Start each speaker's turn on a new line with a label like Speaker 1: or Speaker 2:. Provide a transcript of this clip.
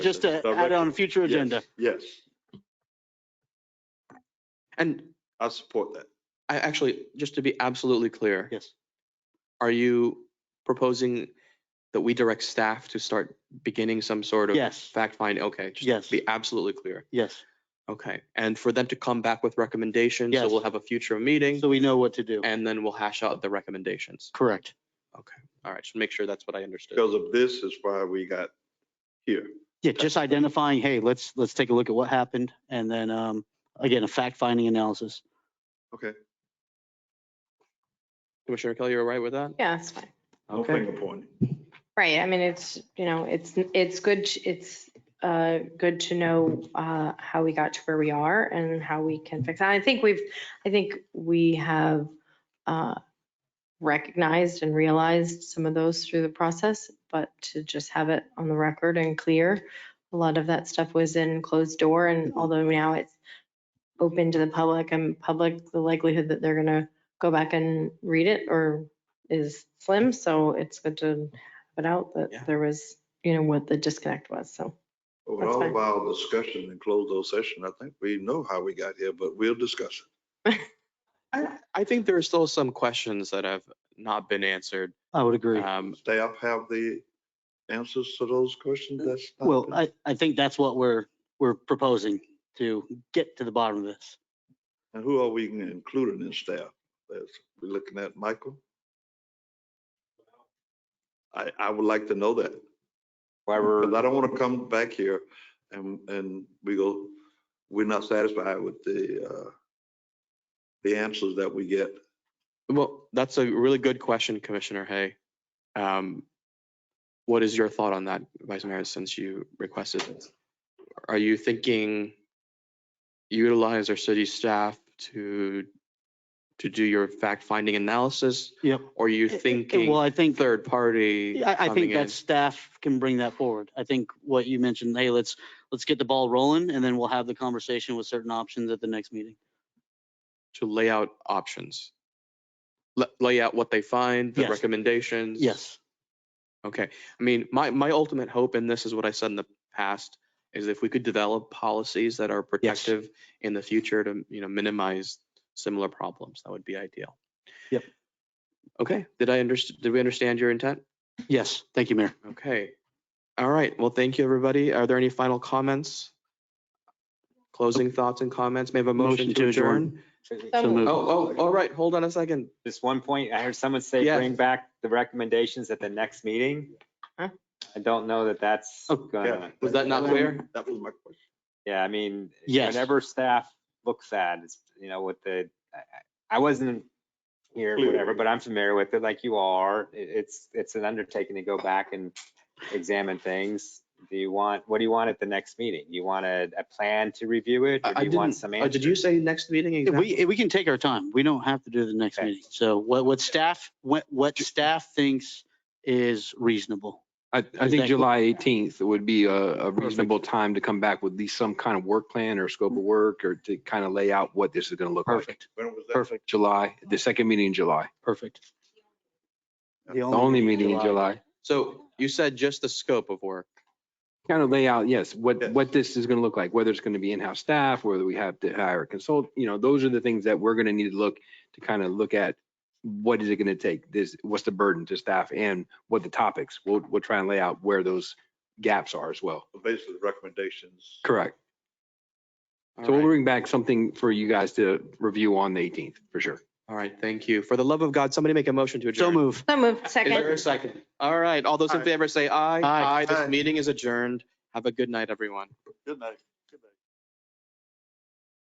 Speaker 1: just to add
Speaker 2: Director.
Speaker 1: on future
Speaker 2: Yes,
Speaker 1: agenda.
Speaker 2: Yes,
Speaker 3: And
Speaker 2: I support that.
Speaker 3: I actually, just to be absolutely clear.
Speaker 1: Yes.
Speaker 3: Are you proposing that we direct staff to start beginning some sort of
Speaker 1: Yes,
Speaker 3: fact finding? Okay, just
Speaker 1: yes,
Speaker 3: be absolutely clear.
Speaker 1: yes.
Speaker 3: Okay, and for them to come back with recommendations, so
Speaker 1: Yes.
Speaker 3: we'll have a future meeting
Speaker 1: So we know what to do.
Speaker 3: and then we'll hash out the recommendations.
Speaker 1: Correct.
Speaker 3: All right, just make sure that's what I understood.
Speaker 2: Because of this is why we got here.
Speaker 1: Yeah, just identifying, hey, let's, let's take a look at what happened. And then, um, again, a fact finding analysis.
Speaker 2: Okay.
Speaker 3: Commissioner Kelly, you're right with that?
Speaker 4: Yeah, that's fine.
Speaker 2: No finger pointing.
Speaker 4: Right. I mean, it's, you know, it's, it's good, t- it's uh, good to know uh, how we got to where we are and how we can fix. it. I think we've, I think we have uh, recognized and realized some of those through the process, but to just have it on the record and clear, a lot of that stuff was in closed door and although now it's open to the public and public, the likelihood that they're going to go back and read it or is slim. So it's good to have it out
Speaker 3: Yeah.
Speaker 4: that there was, you know, what the disconnect was. So.
Speaker 2: Well, With
Speaker 4: That's
Speaker 2: all
Speaker 4: fine.
Speaker 2: of our discussion and close those session, I think we know how we got here, but we'll discuss it.
Speaker 3: I, I think there are still some questions that have not been answered.
Speaker 1: I would agree.
Speaker 3: Um,
Speaker 2: Staff have the answers to those questions? That's not
Speaker 1: Well,
Speaker 2: been-
Speaker 1: I, I think that's what we're, we're proposing to get to the bottom of this.
Speaker 2: And who are we including in staff? That's- We're looking at Michael? I, I would like to know that. Because I don't want to come back here and, and we go, we're not satisfied with the, uh, the answers that we get.
Speaker 3: Well, that's a really good question, Commissioner Hay. Um, What is your thought on that, Vice Mayor, since you requested it? Are you thinking utilize our city staff to, to do your fact-finding analysis?
Speaker 1: Yep.
Speaker 3: Or are you
Speaker 1: Eh, eh, Well,
Speaker 3: thinking
Speaker 1: I think.
Speaker 3: third party?
Speaker 1: Yeah, I, I
Speaker 3: coming
Speaker 1: think
Speaker 3: in?
Speaker 1: that staff can bring that forward. I think what you mentioned, hey, let's, let's get the ball rolling and then we'll have the conversation with certain options at the next meeting.
Speaker 3: To lay out options? La- Lay out what they find, the
Speaker 1: Yes.
Speaker 3: recommendations?
Speaker 1: Yes,
Speaker 3: Okay, I mean, my, my ultimate hope in this is what I said in the past, is if we could develop policies that are protective in the future to, you know, minimize similar problems, that would be ideal.
Speaker 1: Yep.
Speaker 3: Okay, did I underst, did we understand your intent?
Speaker 1: yes. Thank you, Mayor.
Speaker 3: Okay, all right, well, thank you, everybody. Are there any final comments? Closing thoughts and comments, may I have a motion to adjourn?
Speaker 1: So moved.
Speaker 3: Oh, oh, all right, hold on a second.
Speaker 5: Just one point, I heard someone say
Speaker 3: Yes.
Speaker 5: bring back the recommendations at the next meeting.
Speaker 4: Huh?
Speaker 5: I don't know that that's
Speaker 1: Oh,
Speaker 5: gonna,
Speaker 3: Was that not clear?
Speaker 2: That was my question.
Speaker 5: yeah, I mean,
Speaker 1: Yes.
Speaker 5: whenever staff looks at, it's, you know, with the, I- I I wasn't here,
Speaker 2: Clear.
Speaker 5: whatever, but I'm familiar with it like you are. It- It's, it's an undertaking to go back and examine things. Do you want, what do you want at the next meeting? You want a, a plan to review it?
Speaker 3: I-
Speaker 5: Or
Speaker 3: I
Speaker 5: do you want
Speaker 3: didn't-
Speaker 5: some
Speaker 3: Uh,
Speaker 5: answers?
Speaker 3: Did you say next meeting? exactly?
Speaker 1: Oh, We, we can take our time. We don't have to do the next
Speaker 5: Okay.
Speaker 1: meeting. So what, what staff, what, what staff thinks is reasonable.
Speaker 6: I, I
Speaker 1: Is that-
Speaker 6: think July 18th would be a, a reasonable time to come back with at least some kind of work plan or scope of work or to kind of lay out what this is going to look like.
Speaker 1: Perfect,
Speaker 2: When was that?
Speaker 1: perfect,
Speaker 6: July, the second meeting in July,
Speaker 1: perfect.
Speaker 2: The
Speaker 6: the only meeting in July.
Speaker 3: So you said just the scope of work.
Speaker 6: Kind of lay out, yes,
Speaker 2: Yes.
Speaker 6: what, what this is going to look like, whether it's going to be in-house staff, whether we have to hire a consult, you know, those are the things that we're going to need to look, to kind of look at. What is it going to take? This, what's the burden to staff and what the topics? We'll, we'll try and lay out where those gaps are as well.
Speaker 2: Basically recommendations.
Speaker 6: Correct.
Speaker 3: All
Speaker 6: So we'll
Speaker 3: right.
Speaker 6: bring back something for you guys to review on the 18th, for sure.
Speaker 3: All right, thank you. For the love of God, somebody make a motion to adjourn.
Speaker 1: So move.
Speaker 4: So moved.
Speaker 3: Is there
Speaker 4: Second.
Speaker 3: a second? All right, all those in
Speaker 2: Aye.
Speaker 3: favor say aye.
Speaker 1: Aye.
Speaker 3: This
Speaker 2: Aye.
Speaker 3: meeting is adjourned. Have a good night, everyone.
Speaker 2: Good night.